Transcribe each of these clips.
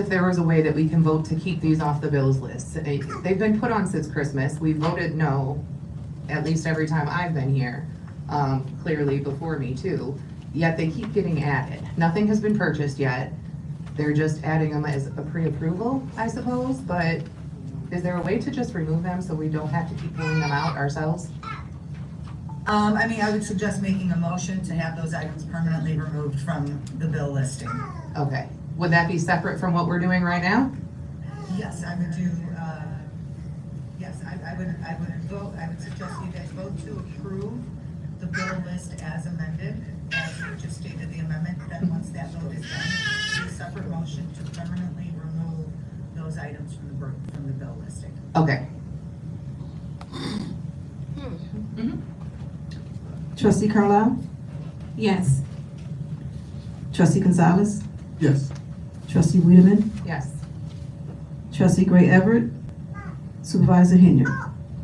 if there was a way that we can vote to keep these off the bills list. They- They've been put on since Christmas. We voted no, at least every time I've been here, um, clearly before me too. Yet they keep getting added. Nothing has been purchased yet. They're just adding them as a pre-approval, I suppose, but is there a way to just remove them so we don't have to keep pulling them out ourselves? Um, I mean, I would suggest making a motion to have those items permanently removed from the bill listing. Okay, would that be separate from what we're doing right now? Yes, I would do, uh, yes, I, I would, I would vote, I would suggest you guys vote to approve the bill list as amended, as you just stated the amendment, then once that vote is done, do a separate motion to permanently remove those items from the, bur- from the bill listing. Okay, Hmm. Mm-hmm. Trustee Carlisle? Yes. Trustee Gonzalez? Yes. Trustee Wiedemann? yes. Trustee Gray Everett? Supervisor Henry?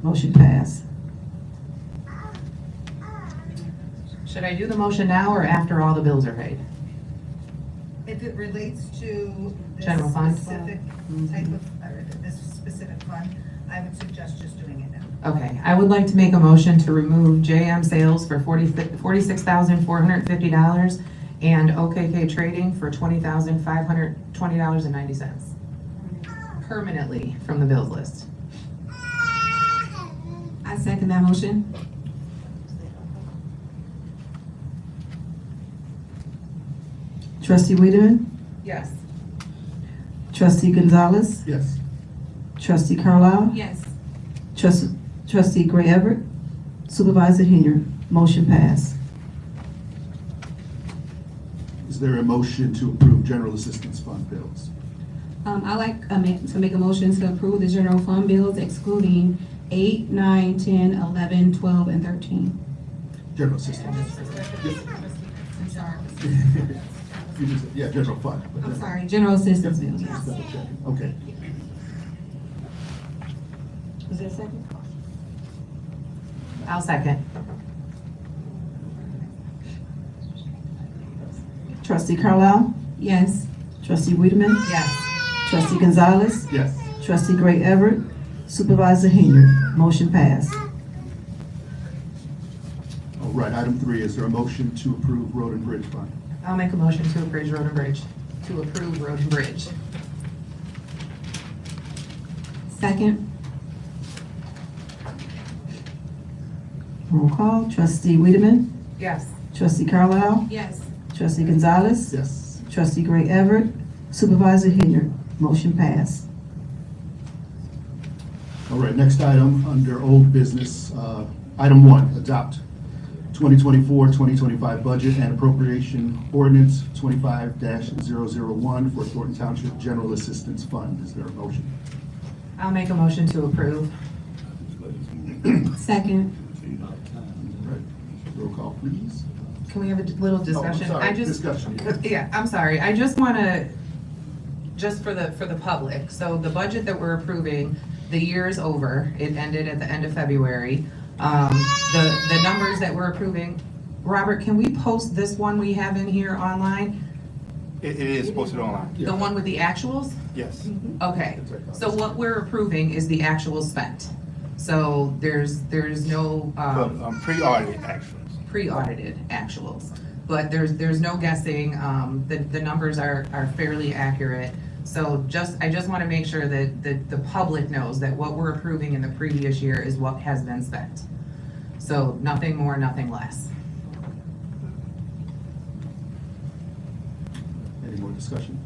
Motion passed. Should I do the motion now or after all the bills are paid? If it relates to this General fund? specific type of, or this specific fund, I would suggest just doing it now. Okay, I would like to make a motion to remove JM Sales for forty, forty-six thousand, four hundred and fifty dollars and OKK Trading for twenty thousand, five hundred, twenty dollars and ninety cents. Permanently from the bills list. I second that motion. Trustee Wiedemann? Yes. Trustee Gonzalez? Yes. Trustee Carlisle? Yes. Trustee, Trustee Gray Everett? Supervisor Henry? Motion passed. Is there a motion to approve general assistance fund bills? Um, I like, uh, ma- to make a motion to approve the general fund bills excluding eight, nine, ten, eleven, twelve, and thirteen. General assistance. You just- Yeah, general fund. but- I'm sorry, general assistance bills. Just double checking. Okay. Is there a second? I'll second. Trustee Carlisle? Yes. Trustee Wiedemann? Yes. Trustee Gonzalez? Yes. Trustee Gray Everett? Supervisor Henry? Motion passed. All right, item three, is there a motion to approve road and bridge fund? I'll make a motion to approve Road and Bridge, to approve Road and Bridge. Second? Roll call. Trustee Wiedemann? Yes. Trustee Carlisle? Yes. Trustee Gonzalez? Yes. Trustee Gray Everett, Supervisor Henry, motion passed. All right, next item, under old business, uh, item one, adopt 2024-2025 budget and appropriation ordinance 25-001 for Thornton Township General Assistance Fund. Is there a motion? I'll make a motion to approve. Second? All right, roll call, please. Can we have a d- little Oh, I'm discussion? sorry, I just, Discussion. Yeah, I'm sorry, I just wanna, just for the, for the public, so the budget that we're approving, the year is over, it ended at the end of February. Um, the, the numbers that we're approving, Robert, can we post this one we have in here online? It, it is posted online, The one with the actuals? yes. Okay, so what we're approving is the actual spent. So there's, there's no, But, um, um, pre-audit actions. pre-audited actuals. But there's, there's no guessing, um, the, the numbers are, are fairly accurate. So just, I just wanna make sure that, that the public knows that what we're approving in the previous year is what has been spent. So nothing more, nothing less. Any more discussion?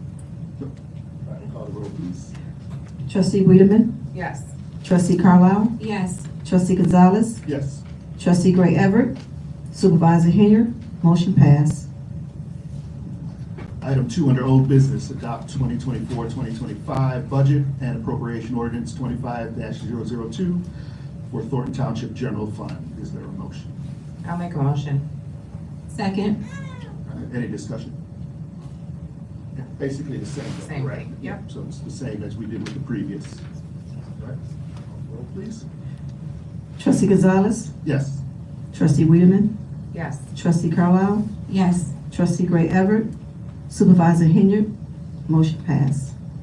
No. All right, call the roll, please. Trustee Wiedemann, Yes. Trustee Carlisle, Yes. Trustee Gonzalez, Yes. Trustee Gray Everett, Supervisor Henry, motion passed. Item two, under old business, adopt 2024-2025 budget and appropriation ordinance 25-002 for Thornton Township General Fund. Is there a motion? I'll make a motion. Second? All right, Uh, Any discussion? Basically the same. though, Same correct? thing, yep. So it's the same as we did with the previous. All right, roll, please. Trustee Gonzalez, Yes. Trustee Wiedemann, Yes. Trustee Carlisle, Yes. Trustee Gray Everett, Supervisor Henry, motion passed.